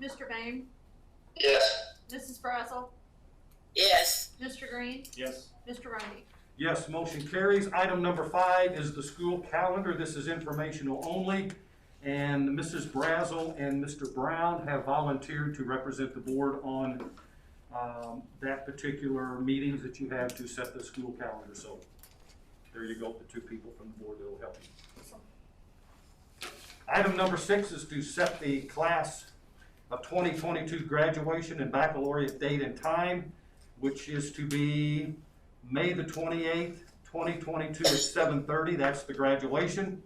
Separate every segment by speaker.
Speaker 1: Mr. Boehm,
Speaker 2: Yes.
Speaker 1: Mrs. Brazel,
Speaker 3: yes,
Speaker 1: Mr. Green,
Speaker 4: Yes.
Speaker 1: Mr. Rungy.
Speaker 5: Yes, motion carries. Item number five is the school calendar. This is informational only. And Mrs. Brazel and Mr. Brown have volunteered to represent the board on um, that particular meetings that you have to set the school calendar. So there you go, the two people from the board that will help you. Item number six is to set the class of 2022 graduation and baccalaureate date and time, which is to be May the twenty-eighth, twenty twenty-two at seven thirty, that's the graduation.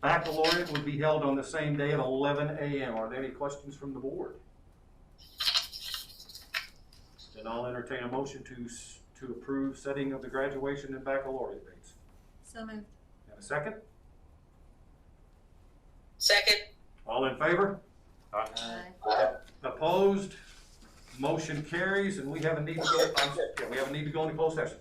Speaker 5: Baccalaureate would be held on the same day at eleven AM. Are there any questions from the board? Then I'll entertain a motion to, s- to approve setting of the graduation and baccalaureate dates.
Speaker 1: So moved.
Speaker 5: And a second?
Speaker 3: second,
Speaker 5: All in favor? Opposed? Motion carries, and we have a need to go, I'm sorry, yeah, we have a need to go into closed session.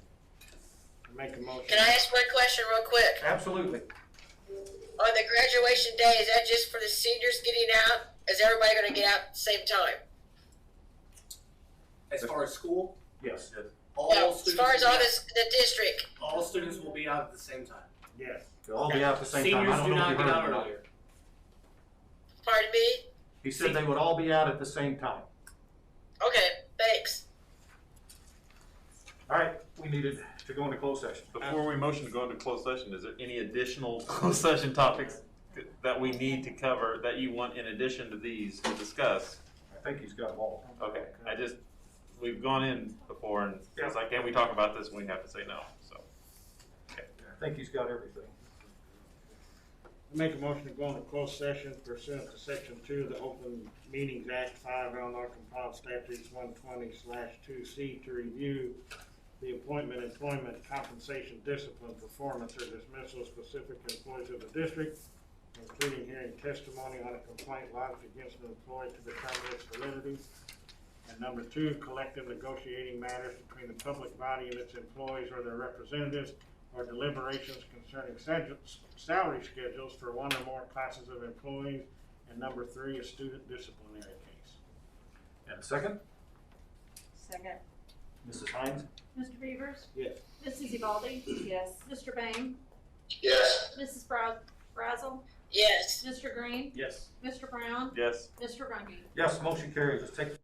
Speaker 4: Make a motion.
Speaker 3: can I ask one question real quick?
Speaker 5: Absolutely.
Speaker 3: On the graduation day, is that just for the seniors getting out? Is everybody gonna get out at the same time?
Speaker 6: As far as school,
Speaker 5: Yes.
Speaker 6: all
Speaker 3: No,
Speaker 6: students.
Speaker 3: as far as
Speaker 6: will
Speaker 3: all
Speaker 6: be out-
Speaker 3: this, the district,
Speaker 6: all students will be out at the same time.
Speaker 4: Yes.
Speaker 5: They'll all be out at the same time.
Speaker 6: Seniors
Speaker 5: I don't
Speaker 6: do
Speaker 5: know if
Speaker 6: not
Speaker 5: you
Speaker 6: get
Speaker 5: heard
Speaker 6: out
Speaker 5: or not.
Speaker 6: earlier.
Speaker 3: pardon me?
Speaker 5: He said they would all be out at the same time.
Speaker 3: Okay, thanks.
Speaker 5: All right, we needed to go into closed session.
Speaker 7: Before we motion to go into closed session, is there any additional closed session topics that we need to cover that you want in addition to these to discuss?
Speaker 5: I think he's got them all.
Speaker 7: Okay, I just, we've gone in before and it's like, can we talk about this? We have to say no, so.
Speaker 5: I think he's got everything.
Speaker 4: Make a motion to go into closed session pursuant to section two of the Open Meetings Act five Illinois compiled statutes one twenty slash two C to review the appointment, employment, compensation, discipline, performance, or dismissal of specific employees of the district, including hearing testimony on a complaint lodged against an employee to determine its validity. And number two, collective negotiating matters between the public body and its employees or their representatives or deliberations concerning sal- salary schedules for one or more classes of employees. And number three, a student disciplinary case.
Speaker 5: And a second?
Speaker 8: Second.
Speaker 5: Mrs. Hines?
Speaker 1: Mr. Beavers,
Speaker 4: Yes.
Speaker 1: Mrs. Evaldi,
Speaker 8: Yes.
Speaker 1: Mr. Boehm,
Speaker 2: Yes.
Speaker 1: Mrs. Bra- Brazel,
Speaker 3: Yes.
Speaker 1: Mr. Green,
Speaker 4: Yes.
Speaker 1: Mr. Brown,
Speaker 7: Yes.
Speaker 1: Mr. Rungy.
Speaker 5: Yes, motion carries. Let's take